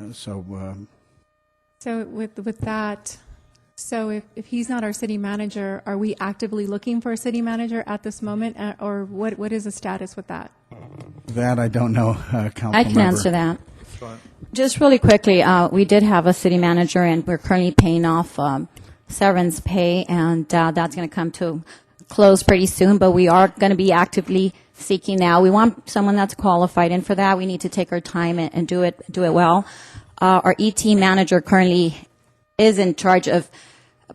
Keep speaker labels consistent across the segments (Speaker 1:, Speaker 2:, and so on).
Speaker 1: Uh, So, um,
Speaker 2: So with, with that, so if, if he's not our city manager, are we actively looking for a city manager at this moment? uh, Or what, what is the status with that?
Speaker 1: that I don't know, uh, council
Speaker 3: I can answer that.
Speaker 1: that.
Speaker 3: Just really quickly, uh, we did have a city manager, and we're currently paying off um, severance pay, and uh, that's going to come to close pretty soon. But we are going to be actively seeking now. We want someone that's qualified, and for that, we need to take our time and, and do it do it well. Uh, our ET manager currently is in charge of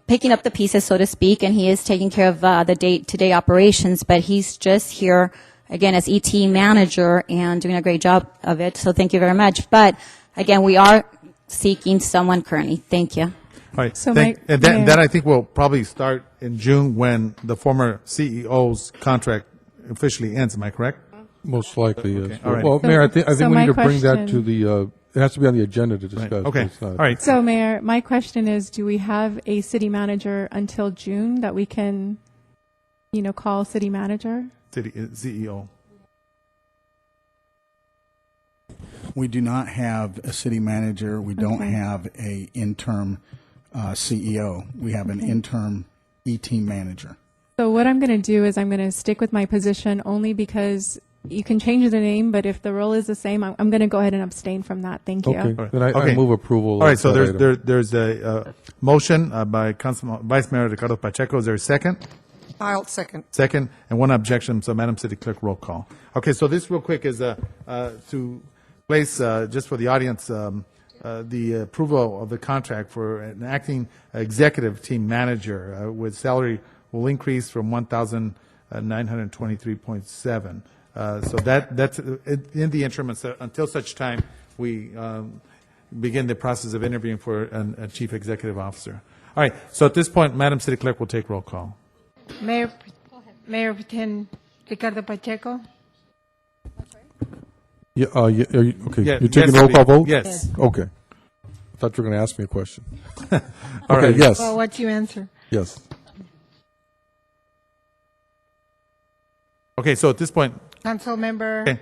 Speaker 3: picking up the pieces, so to speak, and he is taking care of uh, the day-to-day operations. But he's just here again as ET manager and doing a great job of it. So thank you very much. But again, we are seeking someone currently. Thank you.
Speaker 4: All right.
Speaker 2: So
Speaker 4: Thank-
Speaker 2: my-
Speaker 4: and that,
Speaker 2: yeah.
Speaker 4: that I think will probably start in June when the former CEO's contract officially ends. Am I correct?
Speaker 5: Most likely, yes.
Speaker 4: all right.
Speaker 5: Well, Mayor, I think, I
Speaker 2: So
Speaker 5: think we
Speaker 2: my
Speaker 5: need to bring that to
Speaker 2: question-
Speaker 5: the, uh, it has to be on the agenda to discuss.
Speaker 4: Okay.
Speaker 5: It's
Speaker 4: All
Speaker 5: not-
Speaker 4: right.
Speaker 2: So Mayor, my question is, do we have a city manager until June that we can, you know, call city manager?
Speaker 4: City- uh, CEO.
Speaker 1: We do not have a city manager. We don't have a interim uh, CEO. We have an interim ET manager.
Speaker 2: So what I'm going to do is I'm going to stick with my position only because you can change the name, but if the role is the same, I'm, I'm going to go ahead and abstain from that. Thank you.
Speaker 5: Okay.
Speaker 4: All right.
Speaker 5: Then I- I
Speaker 4: Okay.
Speaker 5: move approval
Speaker 4: All right.
Speaker 5: of
Speaker 4: So
Speaker 5: that
Speaker 4: there's
Speaker 5: item.
Speaker 4: there, there's a uh, motion uh, by Council Vice Mayor Ricardo Pacheco. Is there a second?
Speaker 6: I'll second.
Speaker 4: Second, and one objection. So, Madam City Clerk, roll call. Okay, so this real quick is uh, uh, to place, uh, just for the audience, um, uh, the approval of the contract for an acting executive team manager uh, with salary will increase from uh, 1,923.7. Uh, So that, that's uh, in in the interim, and so- until such time, we um, begin the process of interviewing for an- a chief executive officer. All right, so at this point, Madam City Clerk will take roll call.
Speaker 6: Mayor, Mayor Pretend Ricardo Pacheco?
Speaker 5: Yeah, uh, yeah, are you, okay,
Speaker 4: Yeah,
Speaker 5: you're taking
Speaker 4: yes,
Speaker 5: roll call
Speaker 4: please.
Speaker 5: vote?
Speaker 4: Yes.
Speaker 5: Okay. I thought you were going to ask me a question.
Speaker 4: All
Speaker 5: Okay,
Speaker 4: right.
Speaker 5: yes,
Speaker 6: Well, what's your answer?
Speaker 5: yes.
Speaker 4: Okay, so at this point,
Speaker 6: Councilmember
Speaker 4: okay,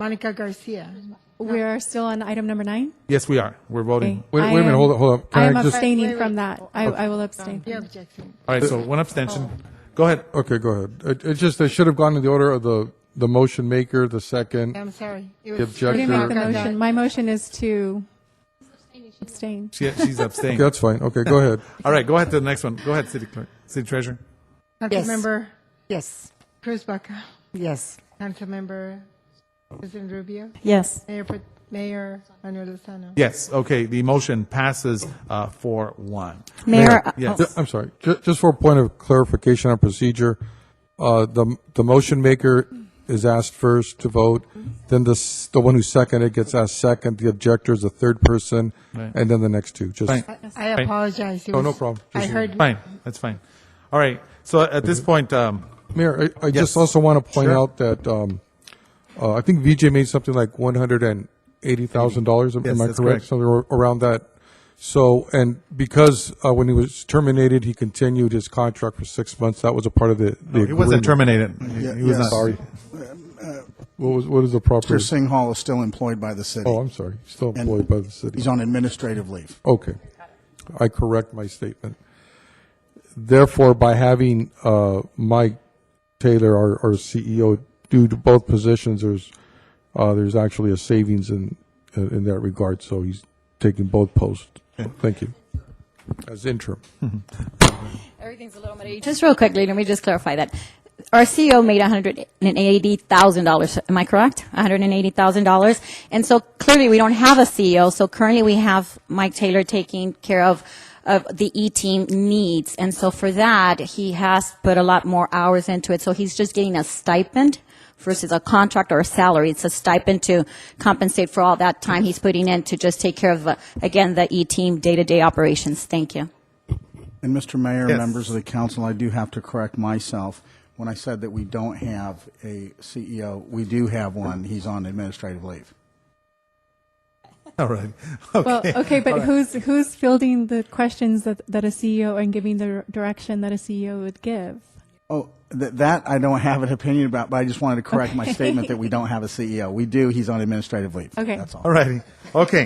Speaker 6: Monica Garcia.
Speaker 2: We are still on item number nine.
Speaker 4: yes, we are. We're voting.
Speaker 2: Okay.
Speaker 5: Wait,
Speaker 2: I
Speaker 5: wait a minute,
Speaker 2: am-
Speaker 5: hold on, hold on. Can
Speaker 2: I
Speaker 5: I
Speaker 2: am
Speaker 5: just- Oh.
Speaker 6: Wait,
Speaker 2: abstaining
Speaker 6: wait.
Speaker 2: from that. I, I will abstain.
Speaker 6: Your objection.
Speaker 4: All right, so one abstention. Go ahead.
Speaker 5: Okay, go ahead. It, it just, it should have gone in the order of the, the motion maker, the second.
Speaker 6: I'm sorry. It
Speaker 5: The
Speaker 6: was-
Speaker 2: Let me
Speaker 5: objection-
Speaker 2: make the
Speaker 5: Sure.
Speaker 2: motion. My motion is to abstain.
Speaker 4: She, she's abstaining.
Speaker 5: Okay, That's fine. Okay, go ahead.
Speaker 4: All right, go ahead to the next one. Go ahead, City Clerk, City Treasurer.
Speaker 6: Councilmember
Speaker 7: Yes,
Speaker 6: Cruz Baca.
Speaker 7: yes.
Speaker 6: Councilmember President Rubio.
Speaker 3: Yes.
Speaker 6: Mayor, Pro- Mayor Manuel Lozano.
Speaker 4: Yes, okay, the motion passes uh, 4-1.
Speaker 3: Mayor, uh,
Speaker 4: Yes.
Speaker 5: Ju- I'm sorry, ju- just for a point of clarification on procedure, uh, the, the motion maker is asked first to vote, then the, s- the one who seconded gets asked second, the objector is the third person, and then the next two, just,
Speaker 4: Fine.
Speaker 6: I apologize. It
Speaker 5: Oh, no
Speaker 6: was-
Speaker 5: problem.
Speaker 6: I
Speaker 5: Just-
Speaker 6: heard,
Speaker 4: Fine, that's fine. All right, so at this point, um,
Speaker 5: Mayor, I, I just
Speaker 4: Yes.
Speaker 5: also want to point
Speaker 4: Sure.
Speaker 5: out that, um, uh, I think VJ made something like one hundred and eighty thousand dollars, am
Speaker 4: Yes,
Speaker 5: am I
Speaker 4: that's correct.
Speaker 5: correct? Something ar- around that. So, and because, uh, when he was terminated, he continued his contract for six months, that was a part of the, the
Speaker 4: he wasn't
Speaker 5: agreement.
Speaker 4: terminated. He
Speaker 1: yes.
Speaker 4: was not-
Speaker 5: Sorry. Uh, What was, what is the proper?
Speaker 1: Mr. Singhal is still employed by the city.
Speaker 5: Oh, I'm sorry. Still
Speaker 1: And
Speaker 5: employed by the city.
Speaker 1: He's on administrative leave.
Speaker 5: Okay. I correct my statement. Therefore, by having uh, Mike Taylor, our, our CEO, do to both positions, there's uh, there's actually a savings in in that regard. So he's taking both posts. Thank you. As interim.
Speaker 3: Everything's a little muddy. Just real quickly, let me just clarify that. Our CEO made $180,000, am I correct? $180,000. And so clearly, we don't have a CEO, so currently we have Mike Taylor taking care of, of the E-team needs. And so for that, he has put a lot more hours into it, so he's just getting a stipend versus a contract or a salary. It's a stipend to compensate for all that time he's putting in to just take care of, uh, again, the E-team day-to-day operations. Thank you.
Speaker 1: And Mr. Mayor,
Speaker 4: Yes.
Speaker 1: members of the council, I do have to correct myself. When I said that we don't have a CEO, we do have one. He's on administrative leave.
Speaker 4: All right,
Speaker 2: Well,
Speaker 4: okay.
Speaker 2: okay, but who's who's fielding the questions that, that a CEO and giving the direction that a CEO would give?
Speaker 1: Oh, th- that I don't have an opinion about, but I E just wanted to correct my statement that we don't have a CEO. We do. He's on administrative leave.
Speaker 2: Okay.
Speaker 1: That's all.
Speaker 4: All righty, okay.